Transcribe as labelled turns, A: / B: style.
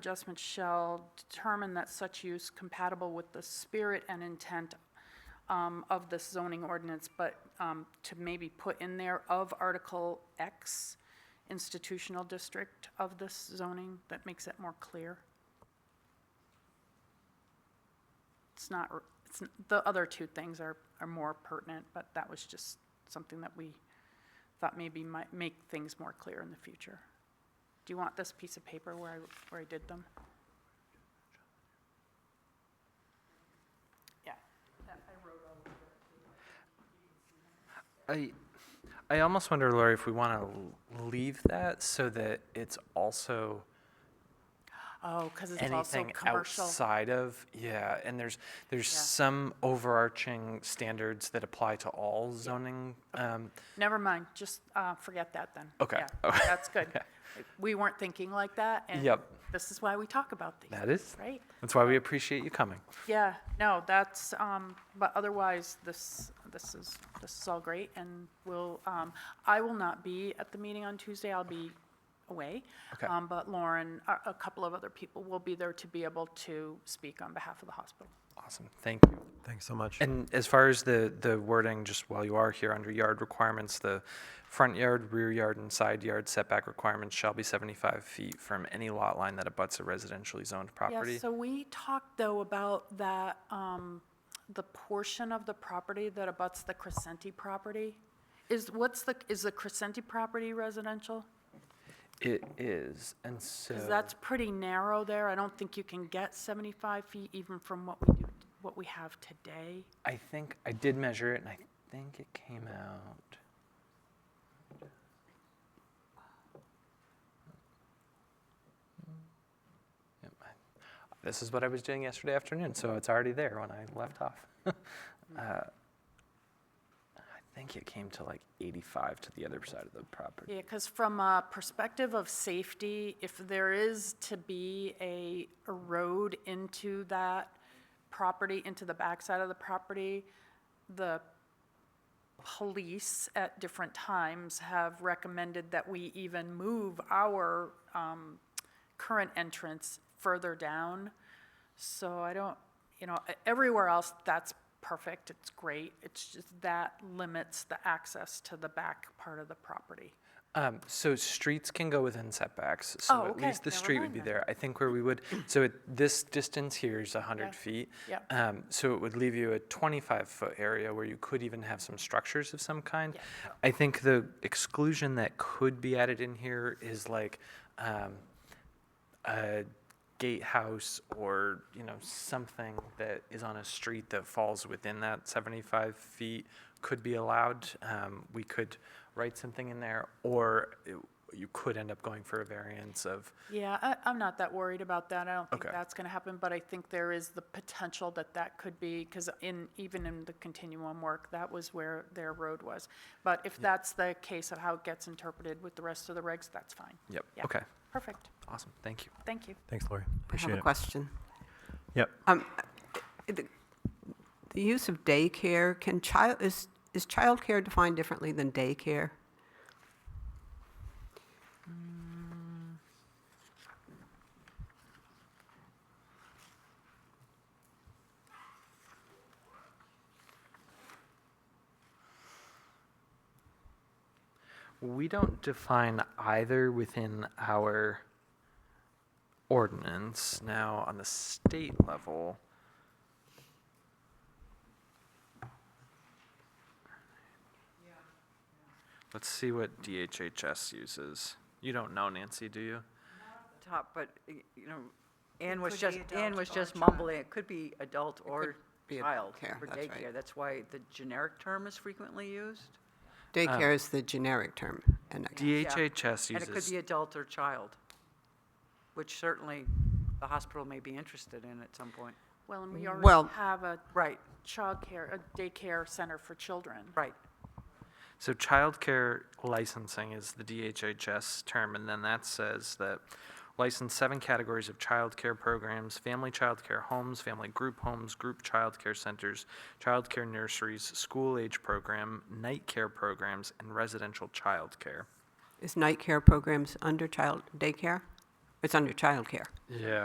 A: adjustment shall determine that such use compatible with the spirit and intent um, of this zoning ordinance, but um, to maybe put in there of Article X, institutional district of this zoning, that makes it more clear. It's not, r- it's, n- the other two things are, are more pertinent, but that was just something that we thought maybe might make things more clear in the future. Do you want this piece of paper where I, where I did them? Yeah.
B: I, I almost wonder, Lori, if we want to leave that so that it's also
A: Oh, because it's also
B: anything
A: commercial.
B: outside of, yeah, and there's, there's
A: Yeah.
B: some overarching standards that apply to all zoning. Um,
A: Never mind, just uh, forget that then.
B: Okay.
A: Yeah,
B: Okay.
A: That's good. We weren't thinking like that, and
B: Yep.
A: this is why we talk about these,
B: That is,
A: right?
B: that's why we appreciate you coming.
A: Yeah, no, that's, um, but otherwise, this, this is, this is all great, and we'll, um, I will not be at the meeting on Tuesday, I'll be away.
B: Okay.
A: Um, But Lauren, a, a couple of other people will be there to be able to speak on behalf of the hospital.
B: Awesome, thank you.
C: Thanks so much.
B: And as far as the, the wording, just while you are here, under yard requirements, the front yard, rear yard, and side yard setback requirements shall be 75 feet from any lot line that abuts a residentially zoned property.
A: Yeah, so we talked, though, about that, um, the portion of the property that abuts the Crescenti property. Is, what's the, is the Crescenti property residential?
B: It is, and so.
A: Because that's pretty narrow there. I don't think you can get 75 feet even from what we do, what we have today.
B: I think I did measure it, and I think it came out. Yep, I- This is what I was doing yesterday afternoon, so it's already there when I left off. uh, I think it came to like 85 to the other side of the property.
A: Yeah, because from a perspective of safety, if there is to be a a road into that property, into the backside of the property, the police at different times have recommended that we even move our um, current entrance further down. So I don't, you know, e- everywhere else, that's perfect, it's great. It's just that limits the access to the back part of the property.
B: Um, so streets can go within setbacks, so
A: Oh, okay.
B: at least the
A: Never
B: street
A: mind
B: would be
A: then.
B: there. I think where we would, so it, this distance here is 100
A: Yeah.
B: feet.
A: Yep.
B: Um, so it would leave you a 25 foot area where you could even have some structures of some kind.
A: Yeah.
B: I think the exclusion that could be added in here is like um, a gatehouse or you know something that is on a street that falls within that 75 feet could be allowed. Um, we could write something in there, or it- you could end up going for a variance of
A: Yeah, I, I'm not that worried about that. I don't think
B: Okay.
A: that's going to happen, but I think there is the potential that that could be, because in, even in the continuum work, that was where their road was. But if that's the case of how it gets interpreted with the rest of the regs, that's fine.
B: yep.
A: Yeah.
B: Okay,
A: Perfect.
B: awesome. Thank you.
A: Thank you.
C: Thanks, Lori.
D: I have
C: Appreciate
D: a
C: it.
D: question.
C: Yep.
D: Um, uh, The the use of daycare, can child, is, is childcare defined differently than daycare?
B: We don't define either within our ordinance. Now, on the state level, let's see what DHHS uses. You don't know, Nancy, do you?
E: top, but, y- you know, Ann was
D: could be
E: just, Ann
D: adult
E: was
D: or
E: just
D: child.
E: mumbling, it could be adult or
D: be
E: child
D: care,
E: for
D: that's right.
E: daycare. That's why the generic term is frequently used.
C: Uh,
D: Daycare is the generic term. and I-
E: Yeah.
B: DHHS
E: And it could
B: uses
E: be adult or child, which certainly the hospital may be interested in at some point.
A: Well, and we
D: Well-
A: already have a
E: Right,
A: childcare, a daycare center for children.
E: right.
B: So childcare licensing is the DHHS term, and then that says that license seven categories of childcare programs, family childcare homes, family group homes, group childcare centers, childcare nurseries, school age program, night care programs, and residential childcare.
D: Is night care programs under child daycare? Or
F: It's under childcare.
D: Yeah.